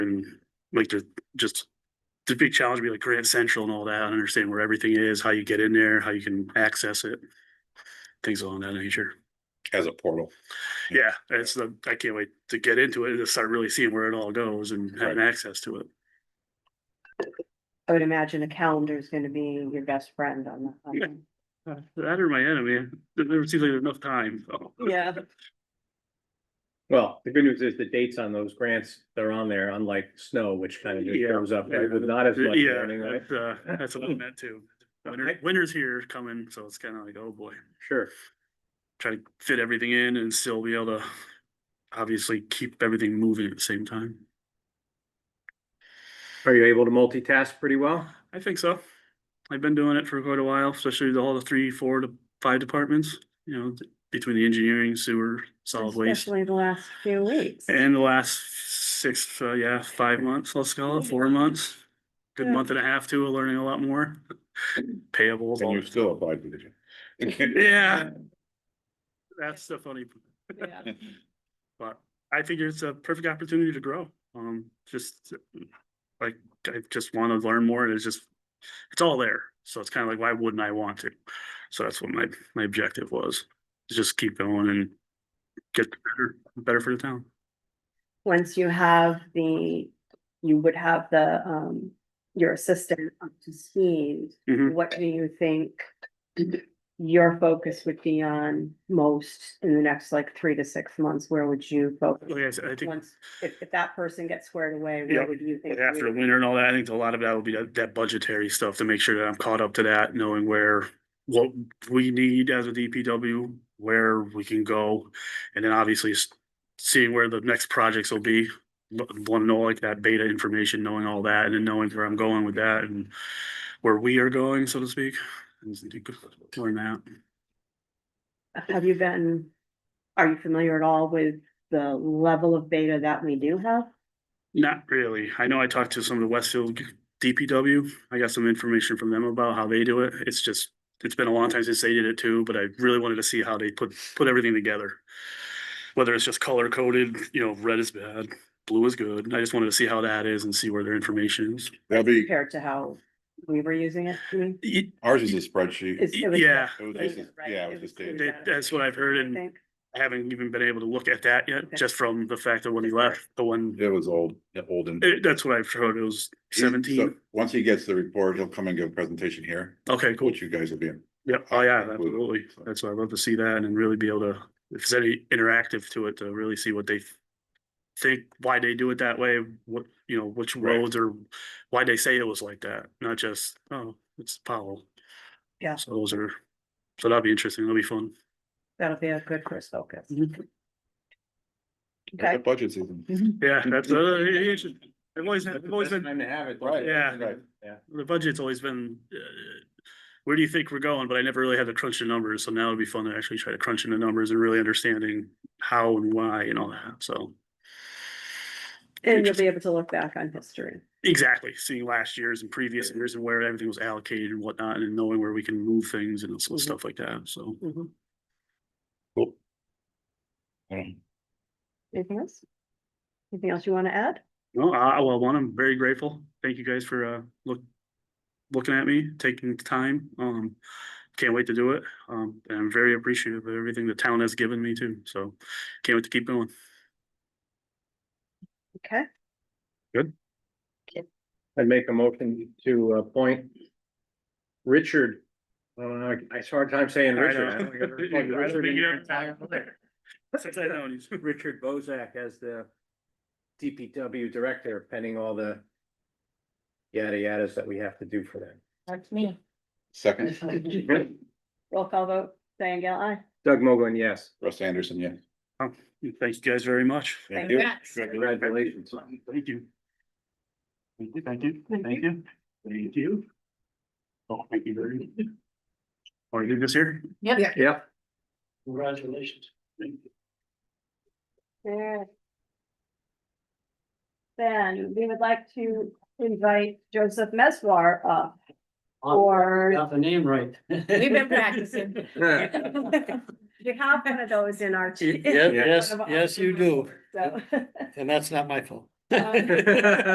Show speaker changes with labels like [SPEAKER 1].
[SPEAKER 1] and like to just the big challenge would be like Grant Central and all that, and understand where everything is, how you get in there, how you can access it. Things along that nature.
[SPEAKER 2] as a portal.
[SPEAKER 1] Yeah, it's the, I can't wait to get into it and to start really seeing where it all goes and having access to it.
[SPEAKER 3] I would imagine a calendar is gonna be your best friend on the. on
[SPEAKER 1] Yeah.
[SPEAKER 3] the-
[SPEAKER 1] Uh, That or my enemy, there never seems like there's enough time, so.
[SPEAKER 3] Yeah,
[SPEAKER 4] Well, the good news is the dates on those grants, they're on there, unlike snow, which kind of just
[SPEAKER 1] Yeah.
[SPEAKER 4] shows up
[SPEAKER 1] Yeah.
[SPEAKER 4] right, with not as much.
[SPEAKER 1] Yeah,
[SPEAKER 4] warning, right?
[SPEAKER 1] that's, uh, that's what I meant too. Winter,
[SPEAKER 4] Okay.
[SPEAKER 1] winter's here coming, so it's kind of like, oh boy,
[SPEAKER 4] Sure,
[SPEAKER 1] try to fit everything in and still be able to obviously keep everything moving at the same time.
[SPEAKER 4] are you able to multitask pretty well?
[SPEAKER 1] I think so. I've been doing it for quite a while, especially the all the three, four to five departments, you know, th- between the engineering, sewer, solid waste.
[SPEAKER 3] especially the last few weeks.
[SPEAKER 1] And the last six, uh, yeah, five months, let's call it, four months. Good
[SPEAKER 3] Yeah.
[SPEAKER 1] month and a half too, of learning a lot more. Payables.
[SPEAKER 2] And
[SPEAKER 1] all
[SPEAKER 2] you
[SPEAKER 1] that
[SPEAKER 2] still
[SPEAKER 1] stuff.
[SPEAKER 2] applied, did you?
[SPEAKER 1] Yeah. That's the funny, p-
[SPEAKER 3] Yeah.
[SPEAKER 1] but I figure it's a perfect opportunity to grow. Um, just like, I just want to learn more and it's just, it's all there. So it's kind of like, why wouldn't I want to? So that's what my, my objective was, is just keep going and get better, better for the town.
[SPEAKER 3] Once you have the, you would have the, um, your assistant up to speed.
[SPEAKER 1] Mhm.
[SPEAKER 3] What do you think your focus would be on most in the next like three to six months? Where would you focus?
[SPEAKER 1] Like I said, Oh, I think
[SPEAKER 3] Once, if, if that person gets squared away,
[SPEAKER 1] Yeah.
[SPEAKER 3] where would you think?
[SPEAKER 1] after the
[SPEAKER 3] you-
[SPEAKER 1] winter and all that, I think a lot of that will be that, that budgetary stuff to make sure that I'm caught up to that, knowing where, what we need as a DPW, where we can go. And then obviously s- seeing where the next projects will be, want to know like that beta information, knowing all that and then knowing where I'm going with that and where we are going, so to speak. And learn that.
[SPEAKER 3] Have you been, are you familiar at all with the level of beta that we do have?
[SPEAKER 1] Not really. I know I talked to some of the Westfield DPW. I got some information from them about how they do it. It's just, it's been a long time since they did it too, but I really wanted to see how they put, put everything together. Whether it's just color coded, you know, red is bad, blue is good. I just wanted to see how that is and see where their information is.
[SPEAKER 2] That'd be,
[SPEAKER 3] compared to how we were using it? I mean,
[SPEAKER 1] Ye-
[SPEAKER 2] ours is a spreadsheet.
[SPEAKER 3] it's- it was
[SPEAKER 1] Yeah.
[SPEAKER 2] It was
[SPEAKER 3] data,
[SPEAKER 2] just,
[SPEAKER 3] right?
[SPEAKER 2] yeah, it
[SPEAKER 3] It
[SPEAKER 2] was just
[SPEAKER 3] was
[SPEAKER 2] data.
[SPEAKER 1] That- That's what I've heard
[SPEAKER 3] I
[SPEAKER 1] and
[SPEAKER 3] think
[SPEAKER 1] I haven't even been able to look at that yet,
[SPEAKER 3] Okay.
[SPEAKER 1] just from the fact that when he left, the one,
[SPEAKER 2] It was old, olden.
[SPEAKER 1] eh, that's what I've heard. It was
[SPEAKER 2] So,
[SPEAKER 1] seventeen.
[SPEAKER 2] Once he gets the report, he'll come and give a presentation here,
[SPEAKER 1] Okay, cool.
[SPEAKER 2] which you guys will be in.
[SPEAKER 1] Yep, oh yeah,
[SPEAKER 2] Absolutely.
[SPEAKER 1] absolutely. That's why I love to see that and then really be able to, if there's any interactive to it, to really see what they think, why they do it that way, what, you know, which
[SPEAKER 2] Right.
[SPEAKER 1] roads or why they say it was like that, not just, oh, it's Powell.
[SPEAKER 3] Yeah.
[SPEAKER 1] So those are, so that'll be interesting. That'll be fun.
[SPEAKER 3] That'll be a good first focus.
[SPEAKER 2] Mm-hmm.
[SPEAKER 1] Mhm.
[SPEAKER 2] It's a
[SPEAKER 3] Okay,
[SPEAKER 2] Budget season.
[SPEAKER 1] Yeah, that's, uh, yeah, yeah, it's- I've always, had- I've always been
[SPEAKER 4] Time to have it.
[SPEAKER 2] Right,
[SPEAKER 1] Yeah.
[SPEAKER 2] right.
[SPEAKER 4] Yeah.
[SPEAKER 1] the budget's always been, uh, where do you think we're going? But I never really had to crunch the numbers. So now it'd be fun to actually try to crunch in the numbers and really understanding how and why and all that. So.
[SPEAKER 3] and you'll be able to look back on history.
[SPEAKER 1] Exactly, seeing last year's and previous years and where everything was allocated and whatnot, and knowing where we can move things and so-
[SPEAKER 3] Mhm.
[SPEAKER 1] stuff like that, so.
[SPEAKER 3] Mhm.
[SPEAKER 2] Cool. Um,
[SPEAKER 3] Anything else? Anything else you want to add?
[SPEAKER 1] No, I, I- well, one, I'm very grateful. Thank you guys for, uh, look, looking at me, taking the time. Um, can't wait to do it. Um, and I'm very appreciative of everything the town has given me too, so can't wait to keep going.
[SPEAKER 3] Okay,
[SPEAKER 4] I'd make a motion to appoint Richard. I don't know, I- I saw a time saying
[SPEAKER 1] I
[SPEAKER 4] Richard.
[SPEAKER 1] know.
[SPEAKER 4] I don't think I've ever
[SPEAKER 1] I
[SPEAKER 4] called you
[SPEAKER 1] don't
[SPEAKER 4] Richard
[SPEAKER 1] think
[SPEAKER 4] in
[SPEAKER 1] you
[SPEAKER 4] your
[SPEAKER 1] ever-
[SPEAKER 4] entire life.
[SPEAKER 1] Since I know you.
[SPEAKER 4] Richard Bozak as the DPW director, pending all the yada yadas that we have to do for them.
[SPEAKER 3] that's me.
[SPEAKER 2] Second,
[SPEAKER 3] Roll call vote, Diane Gale, aye.
[SPEAKER 4] Doug Mogul, yes.
[SPEAKER 2] Russ Anderson, yeah.
[SPEAKER 1] Thank you guys very much.
[SPEAKER 2] you.
[SPEAKER 3] Congrats.
[SPEAKER 4] Congratulations.
[SPEAKER 1] Thank you. Thank you, thank you, thank you, thank you. Oh, thank you very much. Are you just here?
[SPEAKER 4] Yeah.
[SPEAKER 1] Congratulations. Thank you.
[SPEAKER 3] There. Then we would like to invite Joseph Meswar up for
[SPEAKER 5] Got the name right. We've been
[SPEAKER 3] practicing. You have one of those in our.
[SPEAKER 5] Yes, yes, yes, you do.
[SPEAKER 3] So,
[SPEAKER 5] And that's not my fault.
[SPEAKER 4] Um,